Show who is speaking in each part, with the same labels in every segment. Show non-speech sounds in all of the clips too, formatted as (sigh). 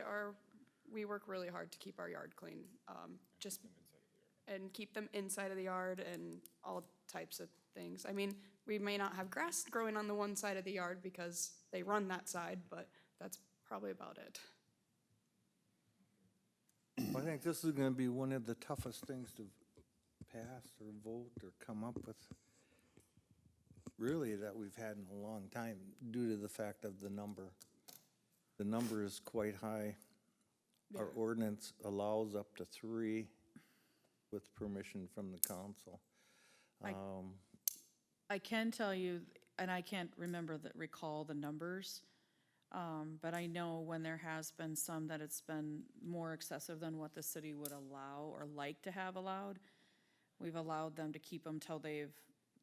Speaker 1: are, we work really hard to keep our yard clean, um, just. And keep them inside of the yard and all types of things. I mean, we may not have grass growing on the one side of the yard because they run that side, but that's probably about it.
Speaker 2: I think this is gonna be one of the toughest things to pass or vote or come up with. Really, that we've had in a long time due to the fact of the number. The number is quite high. Our ordinance allows up to three with permission from the council.
Speaker 3: I-
Speaker 2: Um,
Speaker 3: I can tell you, and I can't remember the, recall the numbers, um, but I know when there has been some that it's been more excessive than what the city would allow or like to have allowed. We've allowed them to keep them till they've,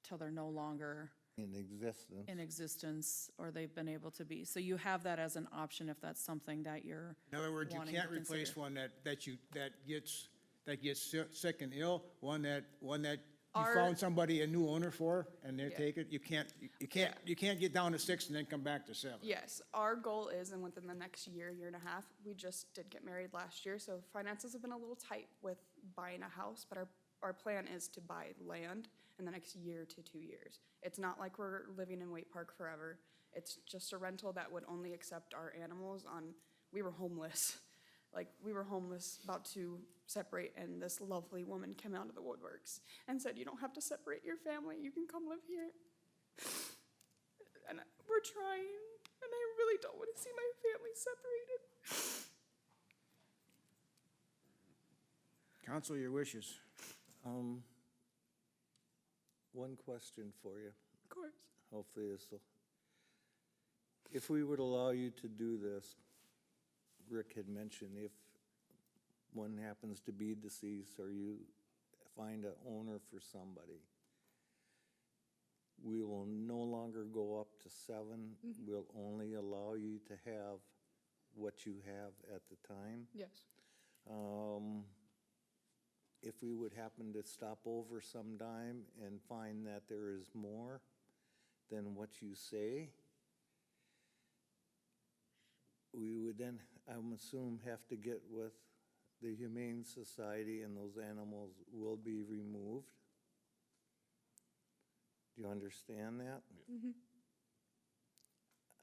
Speaker 3: till they're no longer
Speaker 2: in existence.
Speaker 3: in existence or they've been able to be. So you have that as an option if that's something that you're
Speaker 4: In other words, you
Speaker 3: wanting to
Speaker 4: can't replace
Speaker 3: consider.
Speaker 4: one that, that you, that gets, that gets si- sick and ill, one that, one that you
Speaker 1: Our-
Speaker 4: found somebody, a new owner for, and they
Speaker 1: Yeah.
Speaker 4: take it. You can't, you- you can't, you can't get down to six and then come back to seven.
Speaker 1: Yes, our goal is, and within the next year, year and a half, we just did get married last year, so finances have been a little tight with buying a house, but our, our plan is to buy land in the next year to two years. It's not like we're living in Wake Park forever. It's just a rental that would only accept our animals on, we were homeless. (laughs) Like, we were homeless, about to separate, and this lovely woman came out of the woodworks and said, you don't have to separate your family, you can come live here and I- we're trying, and I really don't want to see my family separated.
Speaker 4: Counsel your wishes.
Speaker 2: Um, One question for you.
Speaker 1: Of course.
Speaker 2: hopefully this will. If we would allow you to do this, Rick had mentioned if one happens to be deceased or you find a owner for somebody, we will no longer go up to seven. We'll only allow you to have what you have at the time.
Speaker 1: Yes.
Speaker 2: Um, If we would happen to stop over sometime and find that there is more than what you say, we would then, I'm assume, have to get with the Humane Society and those animals will be removed. Do you understand that?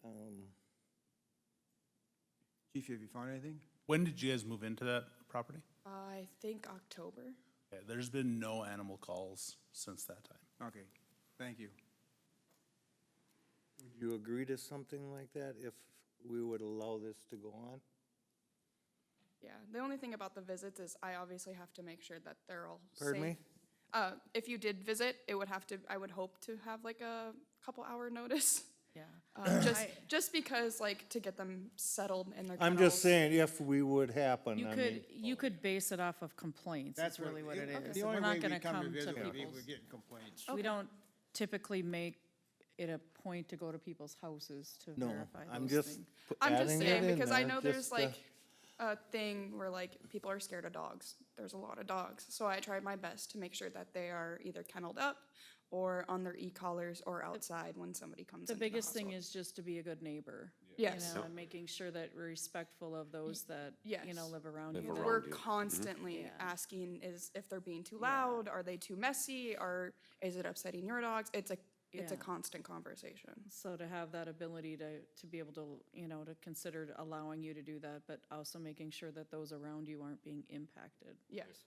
Speaker 2: Um,
Speaker 4: Chief, have you found anything?
Speaker 5: When did you guys move into that property?
Speaker 1: I think October.
Speaker 5: Yeah, there's been no animal calls since that time.
Speaker 4: Okay, thank you.
Speaker 2: Would you agree to something like that if we would allow this to go on?
Speaker 1: Yeah. The only thing about the visits is I obviously have to make sure that they're all
Speaker 2: Pardon
Speaker 1: safe.
Speaker 2: me?
Speaker 1: Uh, if you did visit, it would have to. I would hope to have like a couple hour notice.
Speaker 3: Yeah.
Speaker 1: Uh, just,
Speaker 3: I-
Speaker 1: just because like to get them settled in their.
Speaker 2: I'm
Speaker 1: kennels.
Speaker 2: just saying, if we would happen,
Speaker 3: You
Speaker 2: I
Speaker 3: could,
Speaker 2: mean,
Speaker 3: you could base it off of complaints,
Speaker 4: That's
Speaker 3: is really what it is.
Speaker 4: The
Speaker 3: We're
Speaker 4: only
Speaker 3: not
Speaker 4: way
Speaker 3: gonna
Speaker 4: we come to visit would be if
Speaker 3: people's.
Speaker 4: we're getting complaints.
Speaker 3: We don't typically make it a point to go to people's houses to
Speaker 2: no,
Speaker 3: verify
Speaker 2: I'm
Speaker 3: those
Speaker 2: just
Speaker 3: things.
Speaker 2: pu-
Speaker 1: I'm just
Speaker 2: adding it
Speaker 1: saying
Speaker 2: in
Speaker 1: because I
Speaker 2: there,
Speaker 1: know there's
Speaker 2: just, uh,
Speaker 1: like a thing where like people are scared of dogs. There's a lot of dogs, so I try my best to make sure that they are either kenneled up or on their e-collars or outside when somebody comes.
Speaker 3: The
Speaker 1: into
Speaker 3: biggest thing
Speaker 1: household.
Speaker 3: is just to be a good neighbor.
Speaker 1: Yes.
Speaker 3: You know, and making sure that we're respectful of those that, you know,
Speaker 1: yes.
Speaker 3: live around you. that-
Speaker 1: We're
Speaker 2: Mm-hmm.
Speaker 1: constantly
Speaker 3: Yeah.
Speaker 1: asking is if they're being too loud, are they too messy, or is it upsetting your dogs? It's a it's a
Speaker 3: Yeah.
Speaker 1: constant conversation.
Speaker 3: So to have that ability to, to be able to, you know, to consider allowing you to do that, but also making sure that those around you aren't being impacted.
Speaker 1: Yes.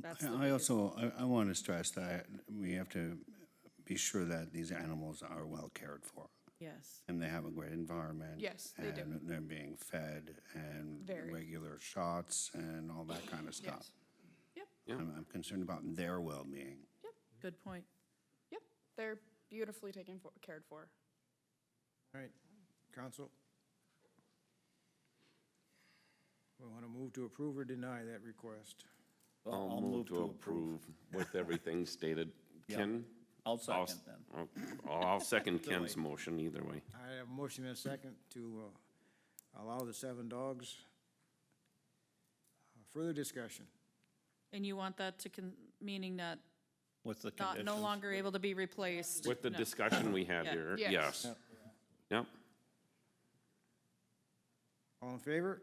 Speaker 3: That's the
Speaker 6: I I
Speaker 3: biggest-
Speaker 6: also, I, I want to stress that we have to be sure that these animals are well cared for
Speaker 3: Yes.
Speaker 6: and they have a great environment.
Speaker 1: Yes, they do.
Speaker 6: And they're being fed and
Speaker 1: Very.
Speaker 6: regular shots and all that kind of stuff.
Speaker 1: Yep.
Speaker 6: I'm, I'm concerned about their well-being.
Speaker 1: Yep.
Speaker 3: Mm-hmm. Good point.
Speaker 1: Yep. They're beautifully taken for, cared for.
Speaker 4: All right, counsel. We want to move to approve or deny that request.
Speaker 7: I'll move to approve with everything stated. (laughs) Ken?
Speaker 8: I'll second
Speaker 7: s-
Speaker 8: then.
Speaker 7: I'll- I'll I'll second Ken's motion either way.
Speaker 4: I have a motion and a second to uh, allow the seven dogs. Uh, Further discussion.
Speaker 3: And you want that to, con- meaning that
Speaker 8: What's the
Speaker 3: not,
Speaker 8: conditions?
Speaker 3: no longer able to be replaced?
Speaker 7: With the
Speaker 3: No.
Speaker 7: discussion we had
Speaker 3: Yeah.
Speaker 7: here,
Speaker 1: Yes.
Speaker 7: yes. Yep,
Speaker 4: All in favor?